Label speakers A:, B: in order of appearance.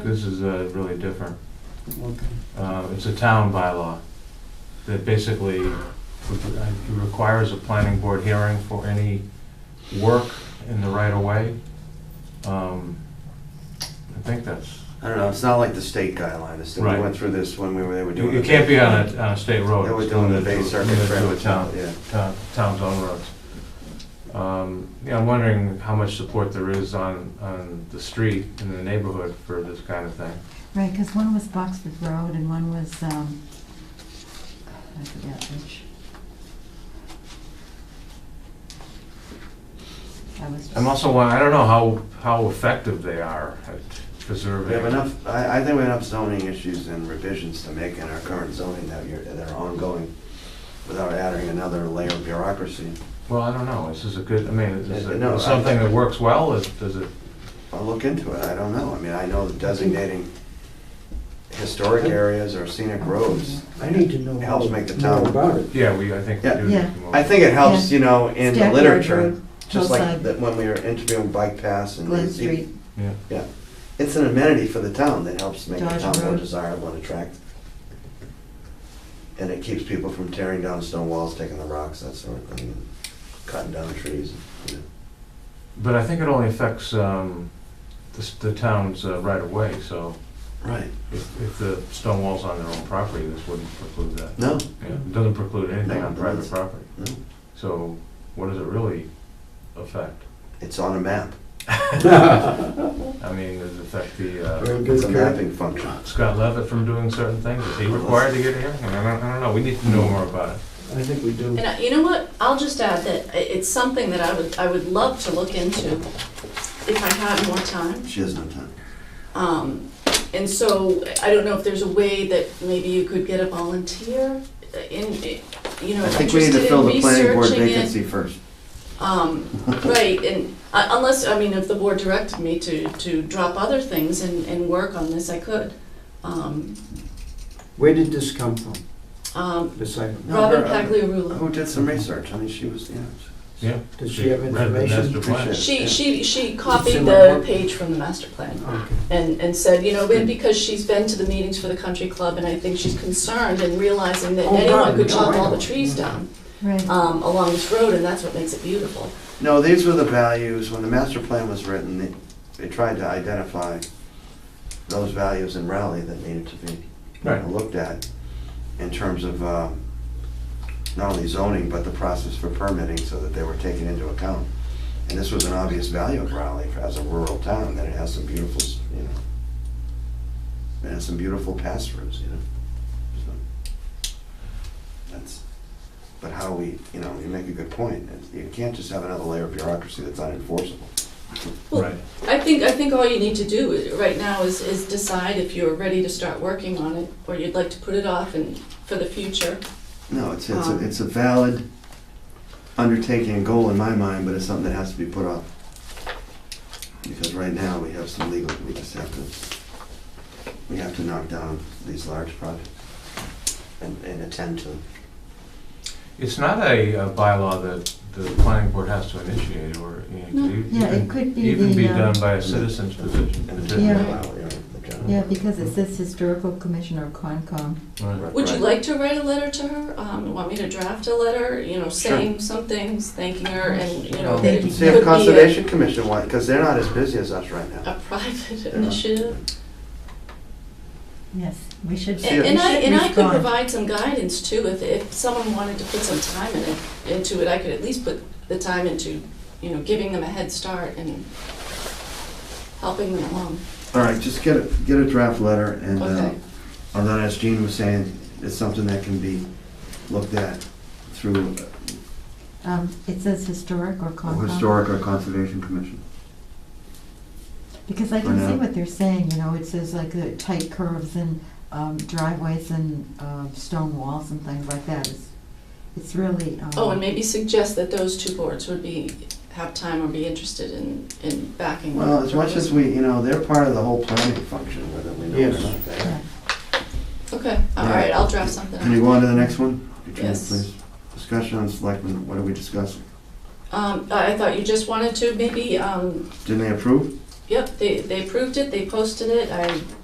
A: This is uh, really different.
B: Okay.
A: Uh, It's a town bylaw that basically requires a planning board hearing for any work in the right of way. Um, I think that's,
C: I don't know, it's not like the state guideline, this, we
A: Right.
C: went through this when we were, they were doing.
A: you can't Oh, be on a, on a state road.
C: They were doing the Bay Circuit
A: It's
C: Trail
A: limited
C: with
A: to town-
C: town, yeah.
A: town- Town's own roads. Um, Yeah, I'm wondering how much support there is on, on the street in the neighborhood for this kind of thing.
D: Right, because one was Boxford Road and one was, um, I forget which. I was just.
A: I'm also wondering, I don't know how, how effective they are at preserving.
C: We have enough, I, I think we have enough zoning issues and revisions to make in our current zoning that you're, that are ongoing without adding another layer of bureaucracy.
A: Well, I don't know, this is a good, I mean, is
C: Uh, no,
A: it
C: I-
A: something that works well, is, does it,
C: I'll look into it, I don't know, I mean, I know designating historic areas or scenic roads,
B: I need to know.
C: Helps make the
B: more
C: town-
B: About it.
A: yeah, we, I think we
C: Yeah.
A: do.
D: Yeah.
A: need more.
C: I think it helps,
D: Yeah.
C: you know, in the
D: Stackyard
C: literature,
D: Road,
C: just like
D: Hillside,
C: that when we were interviewing bike paths and.
D: Glen
C: these-
D: Street,
A: Yeah,
C: It's an amenity for the town that helps make the
D: Dodge
C: town more
D: Road.
C: desirable and attractive. And it keeps people from tearing down stone walls, taking the rocks, that sort of thing, and cutting down trees. you know.
A: but I think it only affects, um, the, s- the town's uh, right of way, so
C: Right.
A: if, if the stone wall's on their own property, this wouldn't preclude that.
C: No,
A: Yeah, it doesn't preclude anything on
C: No,
A: private
C: that's-
A: property.
C: no,
A: So what does it really affect?
C: it's on a map,
A: I mean, does it affect the, uh,
B: Very good,
C: it's a
B: Kurt.
C: mapping function.
A: Scott Levitt from doing certain things? Is he required to get here? I mean, I don't, I don't know, we need to know more about it.
B: I think we do.
E: And I- you know what, I'll just add that i- it's something that I would, I would love to look into if I had more time.
C: She has no time.
E: Um, And so I don't know if there's a way that maybe you could get a volunteer in, you know,
C: I think we need to
E: interested
C: fill
E: in
C: the planning board
E: researching it.
C: vacancy first.
E: Um, Right, and uh, unless, I mean, if the board directed me to, to drop other things and, and work on this, I could. Um,
B: Where did this come from,
E: um,
B: this item?
C: No,
E: Robin
C: her- uh,
E: Pagliarulo,
C: Who did some research, I mean, she was, yeah.
A: Yeah.
B: Does she have
A: Read the master
B: information?
A: plan.
C: Appreciate it.
E: she,
C: yeah.
E: she, she
B: in
E: copied
B: my
E: the
B: book.
E: page from the master plan.
B: Okay.
E: and, and said, you know, and because she's been to the meetings for the country club, and I think she's concerned and realizing that
B: Oh, God,
E: anyone could
B: no,
E: chop
B: I
E: all the
B: know.
E: trees down
D: right.
E: um, along this road, and that's what makes it beautiful.
C: No, these were the values, when the master plan was written, they, they tried to identify those values in Raleigh that needed to be you know,
A: Right.
C: looked at in terms of, um, not only zoning, but the process for permitting, so that they were taken into account. And this was an obvious value of Raleigh as a rural town, that it has some beautiful, s- you know, it has some beautiful pastures, you know? So, That's, but how we, you know, you make a good point, It's- you can't just have another layer of bureaucracy that's unenforceable.
E: Well,
A: Right.
E: I think, I think all you need to do i- right now is, is decide if you're ready to start working on it, or you'd like to put it off and, for the future.
C: No, it's, it's, a-
E: Um,
C: it's a valid undertaking and goal in my mind, but it's something that has to be put off. Because right now, we have some legal, we just have to, we have to knock down these large projects and, and attend to them.
A: It's not a uh, bylaw that the planning board has to initiate, or, you know, it could
D: Yeah, it
A: even-
D: could be
A: even be
D: the, um,
A: done by a citizen's petition.
C: And the
A: petition.
D: Yeah.
C: general, you know, the general-
D: yeah, because it says Historical Commission or Concom.
A: Right.
E: Would you
C: Right.
E: like to write a letter to her? Um, want me to draft a letter, you know, saying some things, thanking her, and, you know,
C: Well,
E: that it could
C: See
E: be
C: if
E: a,
C: Conservation Commission want, because they're not as busy as us right now.
E: a private initiative.
D: Yes, we should.
C: See
E: And and I,
D: we should
E: and I could
D: respond.
E: provide some guidance too, if, if someone wanted to put some time in it, into it, I could at least put the time into, you know, giving them a head start and helping them along.
C: All right, just get a, get a draft letter and, uh,
E: Okay.
C: although as Gene was saying, it's something that can be looked at through
D: Um, it says Historic or
C: a
D: Concom.
C: Historic or Conservation Commission.
D: Because I
C: For
D: can see
C: now.
D: what they're saying, you know, it says like uh, tight curves and um, driveways and uh, stone walls and things like that. It's, it's really. um,
E: Oh, and maybe suggest that those two boards would be, have time or be interested in, in backing. one
C: Well, as much
E: another.
C: as we, you know, they're part of the whole planning function, whether we know it or not. they are.
D: yeah.
E: Okay, all
C: Yeah.
E: right, I'll draft something.
C: Can you go on to the next one? Your turn,
E: Yes.
C: please. Discussion on selectmen, what are we discussing?
E: Um, I I thought you just wanted to maybe, um,
C: Didn't they approve?
E: Yep, they, they approved it, they posted it, I